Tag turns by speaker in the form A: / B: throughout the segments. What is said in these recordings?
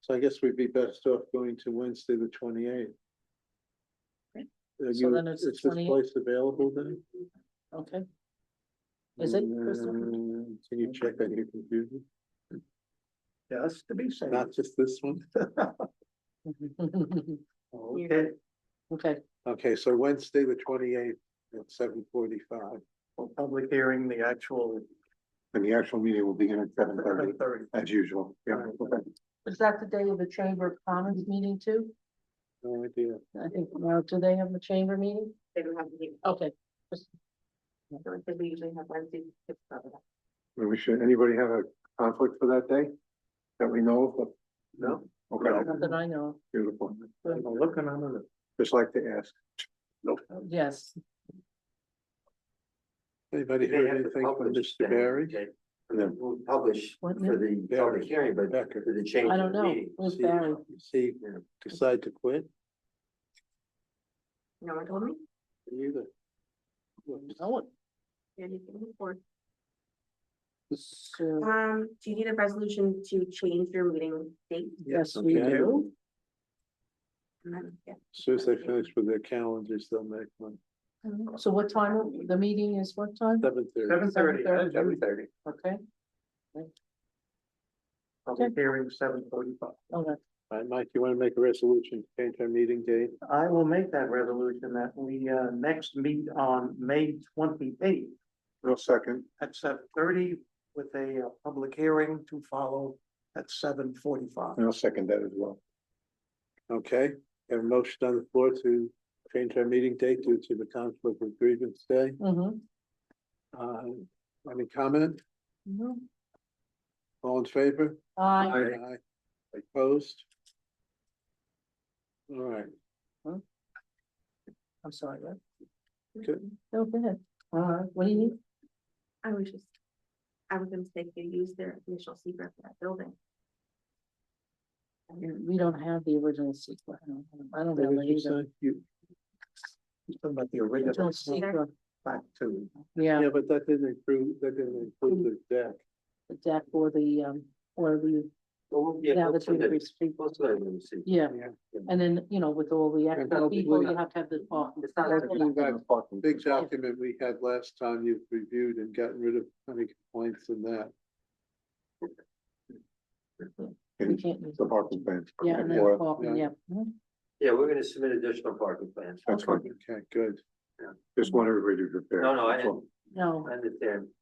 A: So I guess we'd be best off going to Wednesday, the twenty eighth.
B: Right.
A: Are
B: So
A: you,
B: then it's
A: is
B: the
A: this
B: 28th?
A: place available then?
B: okay? Is it, Crystal?
A: Um, Can you check on your computer?
C: Yes, to be safe.
A: Not just this one?
C: Okay,
B: Okay,
A: Okay, so Wednesday, the twenty eighth at seven forty five,
C: well, public hearing, the actual.
A: and the actual meeting will begin at seven thirty,
C: Thirty.
A: as usual. Yeah,
C: Right.
A: okay.
B: is that the day of the Chamber of Commons meeting too?
A: No idea.
B: I think, now, do they have a chamber meeting?
D: They don't have a meeting.
B: Okay,
D: So it's- we usually have Wednesday. it's not that.
A: Well, We should, anybody have a conflict for that day? That we know
C: No,
A: of? Okay,
B: not that I know,
A: beautiful.
C: I'm looking on it.
A: Just like to ask,
B: of. Oh, yes,
A: anybody
E: They
A: heard
E: have to
A: anything from
E: publish
A: Mr.
E: then,
A: Barry?
E: okay?
A: And then
E: We'll publish for
B: What
E: the
A: Yeah.
E: public hearing, but
A: Becker.
E: for the change.
B: I
E: of
B: don't
E: the
B: know.
E: meeting,
B: Who's
E: see-
B: Barry?
A: See,
E: yeah.
A: decide to quit?
D: No one told me.
A: Either.
B: no one,
D: Yeah, you can move forward.
B: so,
D: Um, do you need a resolution to change your meeting date?
B: yes, we
A: okay.
B: do.
D: And then, yeah.
A: As Soon as they finish with their calendars, they'll make one,
B: So what time, will- the meeting is what time?
A: seven thirty.
C: Seven thirty,
B: Seven
E: Seven thirty.
B: Okay,
C: public hearing, seven forty-five.
B: all right,
A: All right, Mike, you wanna make a resolution, to change our meeting date?
C: I will make that resolution that we uh next meet on May twenty-eighth
A: No second.
C: at seven thirty with a uh, public hearing to follow at seven forty-five.
A: I'll second that as well. Okay, have a motion on the floor to change our meeting date due to the conflict of grievance day.
B: mhm,
A: Uh, any comment?
B: mhm.
A: All in favor?
B: Aye.
A: Aye. Opposed? All right,
B: I'm sorry, right?
A: Good.
B: No, go ahead, all right, what do you need?
D: I was just, I was gonna say, you use their initial secret for that building.
B: We don't have the original secret, I don't, I don't
A: what
B: know
A: did you
B: either.
A: say? You-
C: Talking about the
B: Original
C: original
B: secret,
C: back to.
B: yeah,
A: yeah, but that didn't include, that didn't include the deck.
B: the deck or the, um, or the, now the two increased people,
E: Most of them, see.
B: yeah.
A: Yeah.
B: And then, you know, with all the
A: that'll
B: extra
A: be
B: people,
A: good.
B: you have to have the. oh,
E: It's not like
A: Bring back
E: it's parking.
A: Big document we had last time you've reviewed and gotten rid of any complaints in that.
B: We can't use.
A: parking ban.
B: Yeah, and then
A: Yeah.
B: parking, yeah. Mhm.
E: Yeah, we're gonna submit additional parking plans.
A: That's right, okay, good.
E: Yeah.
A: Just want everybody to prepare.
E: No, no, I-
A: That's all.
B: No,
E: I understand.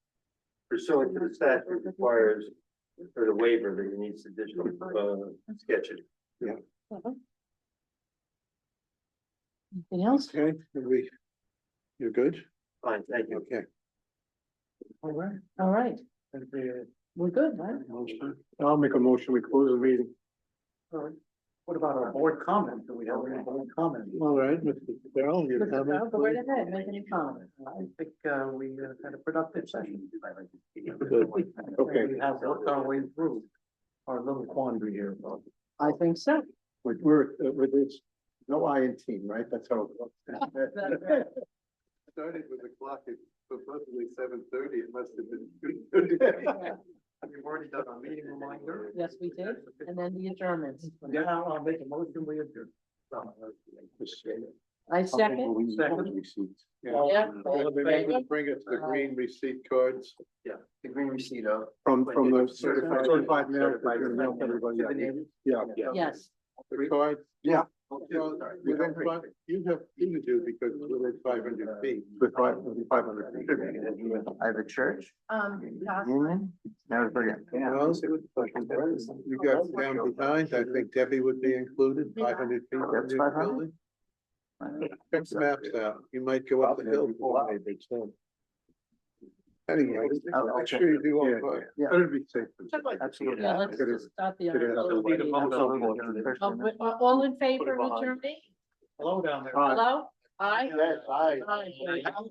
E: Pursuant to the statute requires for the waiver that you need additional, uh, sketches.
B: anything else?
A: Okay, are we, you're good?
E: Fine, thank you.
A: Okay.
C: All right.
B: All right,
C: And the,
B: we're good, right?
A: I'll make a motion, we close the meeting.
C: all right. what about our board comment? Do we have any board comment?
A: All right, Mr. Darrell, your
B: Mr. Darrell,
A: comment?
B: go right
A: please?
B: ahead, make any comment.
C: I think uh, we uh, had a productive session.
A: Good. Okay.
C: We have worked our way through our little quandary here. but-
B: I think so.
A: Like, We're, uh, with this, no I in team, right? That's how. it works. Started with the clock at supposedly seven thirty, it must have been. two thirty.
C: We've already done our meeting reminder.
B: Yes, we did. And then the adjournments.
C: Yeah, I'll I'll make a motion, we adjourn.
B: I second.
C: Second.
A: Yeah.
B: Yeah.
A: Well, they made them Bring us the green receipt cards
E: The green receipt of.
A: from, from the certified.
E: Certified.
A: Certified mail.
E: Certified mail.
A: Everybody,
E: To the neighbors.
A: Yeah.
B: Yes,
A: The card? Yeah.
E: We
A: Within
E: don't
A: five, you have, you can do because it's within five hundred feet.
E: With five, with five hundred feet. I have a church.
B: um, Josh,
E: Union. Now it's brilliant.
A: Well,
B: Oh,
A: You got down behind, I think Debbie would be included, five hundred feet. from
E: That's
A: your
E: 500?
A: building. Check the maps out, you might go up the hill. Anyway,
E: I'll- I'll
A: make sure you do
E: Oh, Yeah,
A: all five.
E: yeah.
A: Better be safe. than sorry.
E: Absolutely.
B: yeah, let's
A: Good.
B: just start the.
A: Good.
B: other one. Uh, we- uh, All in favor of
E: behind.
B: adjournment?
C: Hello down there.
B: Hello? Aye?
E: Yes, aye.
B: Aye.